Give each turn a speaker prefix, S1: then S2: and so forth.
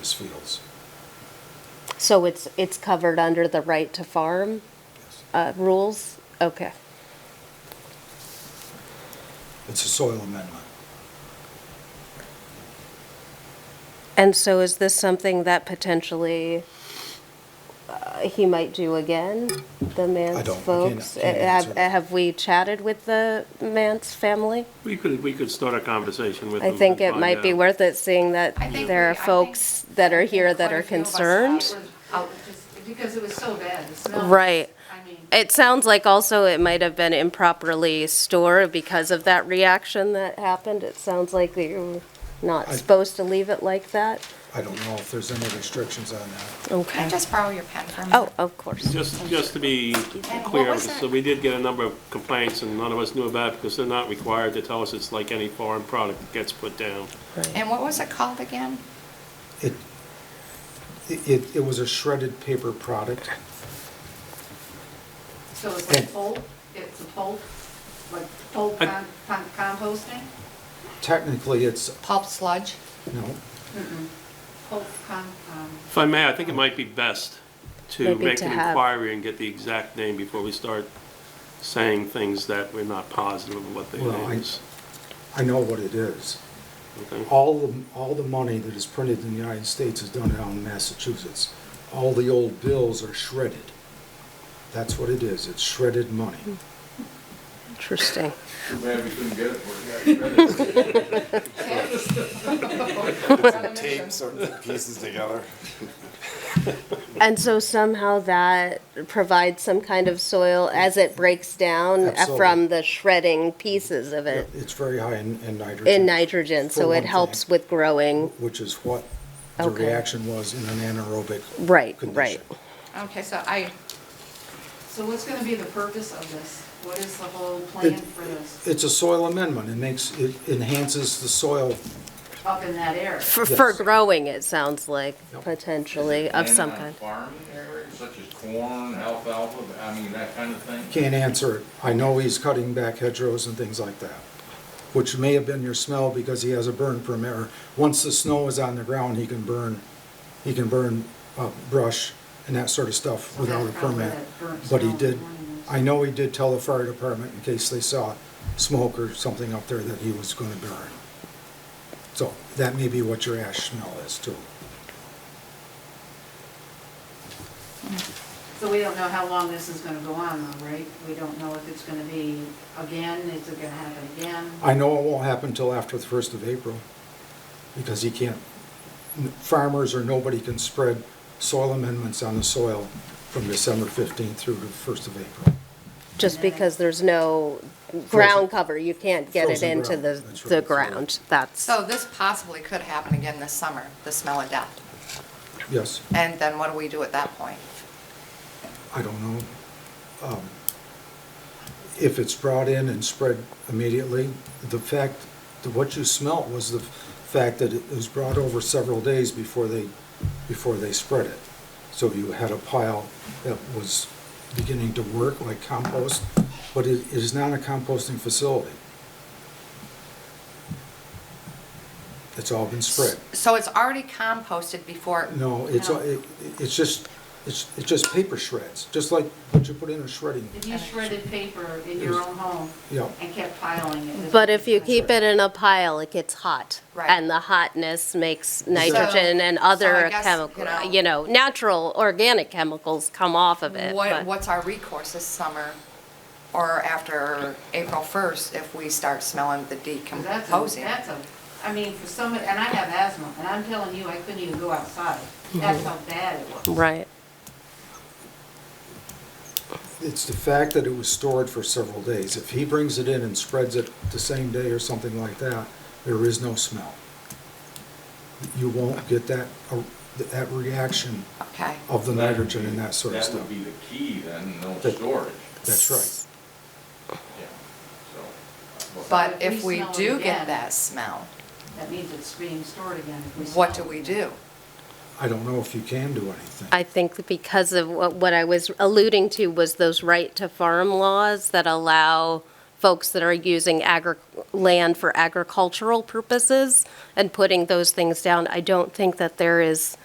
S1: seals.
S2: So it's, it's covered under the right to farm
S1: Yes.
S2: uh, rules? Okay.
S1: It's a soil amendment.
S2: And so is this something that potentially uh, he might do again, the Mance
S1: don't- I can't-
S2: folks?
S1: can't
S2: Uh,
S1: answer
S2: Have
S1: that.
S2: have we chatted with the Mance family?
S3: We could, we could start a conversation with
S2: I
S3: them
S2: think
S3: and
S2: it
S3: find
S2: might be
S3: out.
S2: worth it, seeing that
S4: I think
S2: there
S4: we-
S2: are
S4: I think-
S2: folks that are here that
S4: quite a
S2: are
S4: few of us
S2: concerned.
S4: out with- out just Because it was so bad, the smell.
S2: Right.
S4: I mean,
S2: It sounds like also it might have been improperly stored because of that reaction that happened. It sounds like that you're not
S1: I-
S2: supposed to leave it like that.
S1: I don't know if there's any restrictions on that.
S2: Okay.
S5: borrow your pen for a
S2: Oh, of course.
S3: Just, just to be
S5: And what
S3: clear,
S5: was that?
S3: so we did get a number of complaints and none of us knew about it because they're not required to tell us it's like any foreign product that gets put down.
S5: And what was it called again?
S1: It, it, it was a shredded paper product.
S4: so it's like
S1: Yeah.
S4: pulp, it's a pulp, like pulp
S3: I-
S4: con- con- composting,
S1: Technically, it's,
S5: Pulp sludge?
S1: no,
S4: pulp con, um,
S3: If I may, I think it might be best to
S2: Maybe
S3: make
S2: to
S3: an
S2: have-
S3: inquiry and get the exact name before we start saying things that we're not positive of what the
S1: Well,
S3: name
S1: I-
S3: is.
S1: I know what it is.
S3: okay?
S1: All the, all the money that is printed in the United States is done down in Massachusetts. All the old bills are shredded. That's what it is, it's shredded money.
S2: Interesting.
S6: Too bad we couldn't get it for you guys.
S7: tape sort of pieces together.
S2: And so somehow that provides some kind of soil as it breaks down uh,
S1: Absolutely.
S2: from the shredding pieces of it
S1: It's very high in in nitrogen.
S2: in nitrogen,
S1: For
S2: so
S1: one
S2: it
S1: thing.
S2: helps with growing.
S1: Which is what the
S2: Okay.
S1: reaction was in an anaerobic
S2: Right, right.
S1: condition.
S5: Okay, so I,
S4: so what's gonna be the purpose of this? What is the whole plan
S1: It-
S4: for this,
S1: It's a soil amendment, it makes, it enhances the soil.
S4: up in that area?
S2: For, for
S1: Yes.
S2: growing, it sounds like,
S1: Yep.
S2: potentially, of
S6: And,
S2: some
S6: uh,
S2: kind.
S6: Farming areas such as corn, alfalfa, I mean, that kind of thing.
S1: Can't answer it. I know he's cutting back hedgerows and things like that, which may have been your smell because he has a burn permit. or Once the snow is on the ground, he can burn, he can burn uh, brush and that sort of stuff
S4: So
S1: without a
S4: that's probably
S1: permit.
S4: that burnt
S1: But he
S4: smell in the
S1: did,
S4: morning.
S1: I know he did tell the fire department in case they saw smoke or something up there that he was gonna burn. So that may be what your ash smell is too.
S4: So we don't know how long this is gonna go on though, right? We don't know if it's gonna be again, is it gonna happen again?
S1: I know it won't happen till after the first of April, because he can't, farmers or nobody can spread soil amendments on the soil from December fifteenth through the first of April.
S2: Just
S4: And then-
S2: because there's no ground cover, you can't get it
S1: Frozen
S2: into
S1: ground,
S2: the,
S1: that's
S2: the
S1: right.
S2: ground. That's,
S5: so this possibly could happen again this summer, the smell of death.
S1: Yes,
S5: And then what do we do at that point?
S1: I don't know. Um, If it's brought in and spread immediately, the fact, that what you smelt was the fact that it was brought over several days before they, before they spread it. So you had a pile that was beginning to work like compost, but it it is not a composting facility. It's all been spread.
S5: So it's already composted before,
S1: No, it's,
S4: No.
S1: it- it's just, it's it's just paper shreds, just like what you put in a shredding.
S4: If you shredded paper in your own home
S1: Yeah.
S4: and kept piling it. this
S2: but
S4: would
S2: if
S4: be
S2: you
S4: fine.
S2: keep it in a pile, it gets hot.
S5: Right.
S2: And the hotness makes
S5: Exactly.
S2: nitrogen and
S5: So- so I
S2: other
S5: guess,
S2: chemical,
S5: you know-
S2: you know, natural organic chemicals come off of it.
S5: what,
S2: but-
S5: what's our recourse this summer or after April 1st if we start smelling the
S4: 'Cause That's, a-
S5: decomposing?
S4: that's a, I mean, for some, and I have asthma, and I'm telling you, I couldn't even go outside. That's how bad it was.
S2: Mm-hmm. Right.
S1: It's the fact that it was stored for several days. If he brings it in and spreads it the same day or something like that, there is no smell. You won't get that, uh, that reaction
S5: Okay.
S1: of the nitrogen and that sort of
S6: That
S1: stuff.
S6: would be the key then, no
S1: That-
S6: storage,
S1: That's right.
S6: yeah, so. uh,
S5: But
S4: if
S5: if
S4: we
S5: we
S4: smell it
S5: do
S4: again-
S5: get that smell,
S4: That means it's being stored again. if we
S5: what do
S4: smell it.
S5: we do?
S1: I don't know if you can do anything.
S2: I think because of what, what I was alluding to was those right to farm laws that allow folks that are using agri, land for agricultural purposes and putting those things down. I don't think that there is